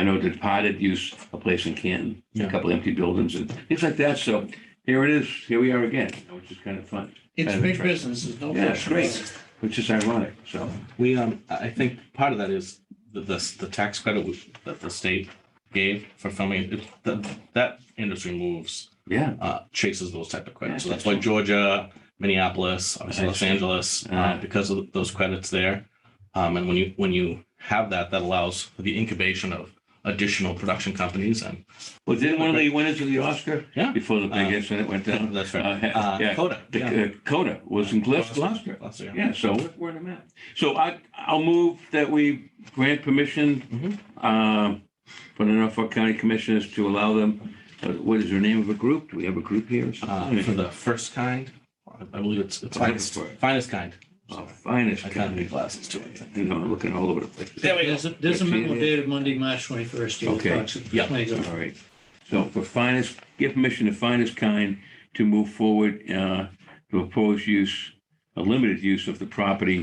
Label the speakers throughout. Speaker 1: I know the departed used a place in Canton, a
Speaker 2: Yeah.
Speaker 1: couple empty buildings and things like that. So here it is, here we are again, which is kind of fun,
Speaker 3: It's
Speaker 1: Kind of
Speaker 3: big
Speaker 1: interesting.
Speaker 3: business, there's
Speaker 2: Oh,
Speaker 3: no
Speaker 1: Yeah, it's
Speaker 3: question.
Speaker 1: great. which is ironic. So,
Speaker 2: We, um, I I think part of that is the, the, the tax credit we- that the state gave for filming, it, that, that industry moves,
Speaker 1: yeah,
Speaker 2: uh, chases those type of credits. So that's why Georgia, Minneapolis, obviously Los Angeles, uh, because of those credits there. Um, and when you, when you have that, that allows for the incubation of additional production companies and,
Speaker 1: well, didn't one of the winners of the Oscar?
Speaker 2: Yeah.
Speaker 1: Before the big
Speaker 2: Uh,
Speaker 1: incident went down.
Speaker 2: that's right.
Speaker 1: Uh,
Speaker 2: Uh,
Speaker 1: Yeah,
Speaker 2: Coda,
Speaker 1: the-
Speaker 2: yeah.
Speaker 1: uh, Coda was in Gloucester, Gloucester.
Speaker 2: Gloucester, yeah.
Speaker 1: Yeah, so we're- we're in a map. So I, I'll move that we grant
Speaker 2: Mm-hmm.
Speaker 1: permission um, for the Norfolk County Commissioners to allow them, uh, what is their name of a group? Do we have a group here? or
Speaker 2: Uh, for
Speaker 1: something?
Speaker 2: the first kind, I believe it's, it's
Speaker 1: Finest.
Speaker 2: finest, finest kind.
Speaker 1: Oh, Finest
Speaker 2: I kind of
Speaker 1: County.
Speaker 2: need glasses too. I think.
Speaker 1: You know, I'm looking all over the place.
Speaker 2: There we go.
Speaker 3: There's a, there's a memo dated Monday, March twenty-first.
Speaker 1: Okay,
Speaker 2: yeah.
Speaker 1: All right. So for finest, give permission to finest kind to move forward uh, to oppose use, a limited use of the property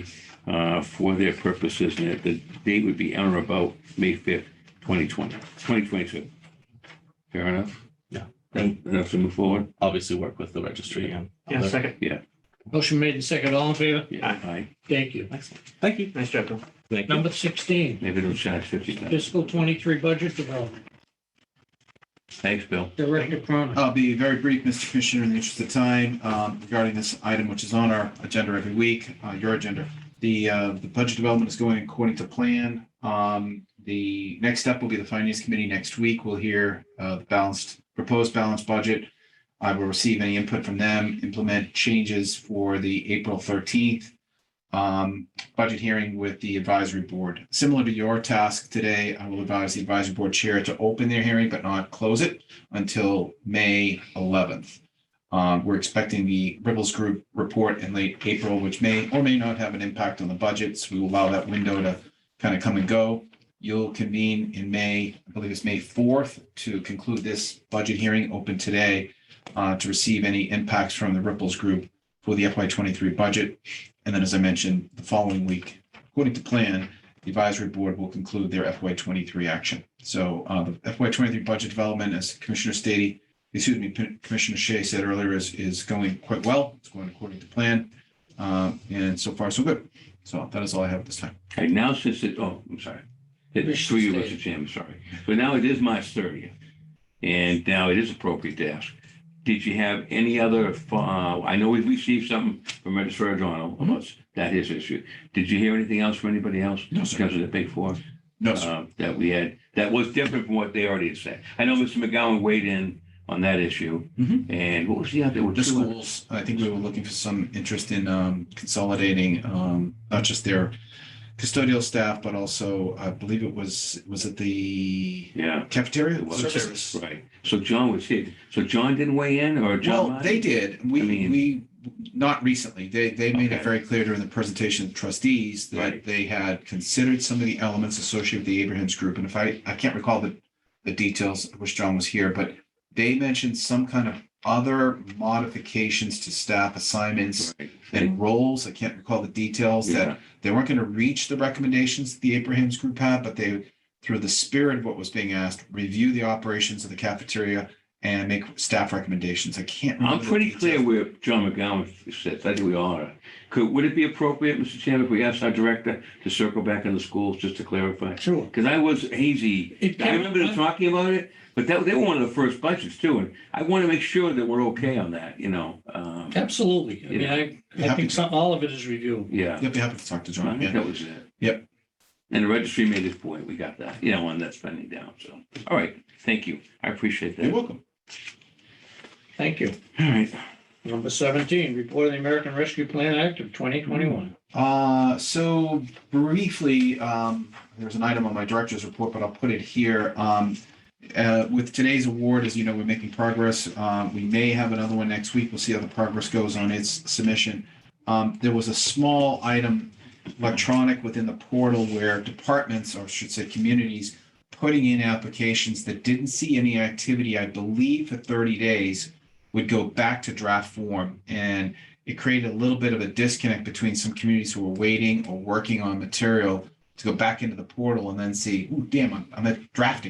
Speaker 1: uh, for their purposes. And that the date would be on or about May 5th, 2020, 2022. Fair enough?
Speaker 2: Yeah.
Speaker 1: Then- Enough to move forward?
Speaker 2: obviously work with the registry and.
Speaker 4: Yeah,
Speaker 2: other-
Speaker 4: second.
Speaker 3: Motion made in second, all in favor?
Speaker 1: Yeah. Aye.
Speaker 3: Thank you.
Speaker 2: Excellent. Thank you.
Speaker 4: Nice job, Bill.
Speaker 2: Thank you.
Speaker 3: Number sixteen,
Speaker 1: Maybe they'll charge 50. bucks.
Speaker 3: fiscal twenty-three budget development,
Speaker 1: Thanks, Bill.
Speaker 3: Director
Speaker 1: Uh,
Speaker 3: Cronin.
Speaker 5: I'll be very brief, Mr. Commissioner, in the interest of time, um, regarding this item, which is on our agenda every week, uh, your agenda. The, uh, the budget development is going according to plan. Um, the next step will be the finance committee next week. We'll hear, uh, the balanced, proposed balanced budget. I will receive any input from them, implement changes for the April thirteenth, um, budget hearing with the advisory board. Similar to your task today, I will advise the advisory board chair to open their hearing but not close it until May eleventh. Um, we're expecting the Ripples Group report in late April, which may or may not have an impact on the budgets. We will allow that window to kind of come and go. You'll convene in May, I believe it's May fourth, to conclude this budget hearing open today uh, to receive any impacts from the Ripples Group for the FY twenty-three budget. And then, as I mentioned, the following week, according to plan, the advisory board will conclude their FY twenty-three action. So uh, the FY twenty-three budget development, as Commissioner Stady, excuse me, P- Commissioner Shea said earlier, is, is going quite well. It's going according to plan. Um, And so far, so good. So that is all I have at this time.
Speaker 1: Okay, now since it, oh, I'm sorry. It's
Speaker 3: Commissioner
Speaker 1: three of us,
Speaker 3: Staley.
Speaker 1: Jim, sorry. But now it is March thirtieth. And now it is appropriate to ask, did you have any other, fo- uh, I know we received something from Registrar O'Donnell
Speaker 5: Mm-hmm.
Speaker 1: about that his issue. Did you hear anything else from anybody else?
Speaker 5: No, sir.
Speaker 1: Because of the big four?
Speaker 5: No, sir.
Speaker 1: uh, That we had, that was different from what they already had said. I know Mr. McGowan weighed in on that issue.
Speaker 5: Mhm.
Speaker 1: And what was the other?
Speaker 5: The schools, I think we were looking for some interest in um, consolidating, um, not just their custodial staff, but also, I believe it was, was it the
Speaker 1: Yeah,
Speaker 5: cafeteria?
Speaker 4: Services.
Speaker 1: right. So John was here. So John didn't weigh in or John?
Speaker 5: Well,
Speaker 1: Martin?
Speaker 5: they did.
Speaker 1: I
Speaker 5: We,
Speaker 1: mean-
Speaker 5: we, not recently. They, they made
Speaker 1: Okay.
Speaker 5: it very clear during the presentation of trustees
Speaker 1: Right.
Speaker 5: that they had considered some of the elements associated with the Abrahams group. And if I, I can't recall the, the details, I wish John was here, but they mentioned some kind of other modifications to staff assignments
Speaker 1: Right.
Speaker 5: and roles. I can't recall the details that
Speaker 1: Yeah.
Speaker 5: they weren't going to reach the recommendations that the Abrahams group had, but they, through the spirit of what was being asked, review the operations of the cafeteria and make staff recommendations. I can't.
Speaker 1: I'm
Speaker 5: remember the
Speaker 1: pretty clear
Speaker 5: details.
Speaker 1: where John McGowan sits. I think we all are. Could, would it be appropriate, Mr. Chairman, if we asked our director to circle back in the schools just to clarify?
Speaker 3: Sure.
Speaker 1: Because I was hazy.
Speaker 3: It
Speaker 1: I remember them
Speaker 3: can,
Speaker 1: talking about it, but that, they were one of the first budgets too. And I want to make sure that we're okay on that, you know? Um,
Speaker 3: absolutely. I mean, I, I think some, all of it is reviewed.
Speaker 1: Yeah.
Speaker 5: Yep, be happy to talk to
Speaker 1: I
Speaker 5: John.
Speaker 1: think
Speaker 5: Yeah.
Speaker 1: that was it.
Speaker 5: Yep.
Speaker 1: And the registry made his point. We got that, you know, on that spending down. So, all right. Thank you. I appreciate
Speaker 5: You're
Speaker 1: that. All
Speaker 5: welcome.
Speaker 3: Thank you.
Speaker 1: right.
Speaker 3: Number seventeen, report of the American Rescue Plan Act of twenty twenty-one.
Speaker 5: Uh, so briefly, um, there's an item on my director's report, but I'll put it here. Um, uh, with today's award, as you know, we're making progress. Uh, we may have another one next week. We'll see how the progress goes on its submission. Um, there was a small item electronic within the portal where departments, or I should say communities, putting in applications that didn't see any activity, I believe, for 30 days would go back to draft form. And it created a little bit of a disconnect between some communities who were waiting or working on material to go back into the portal and then see, ooh, damn, I'm, I'm at drafting.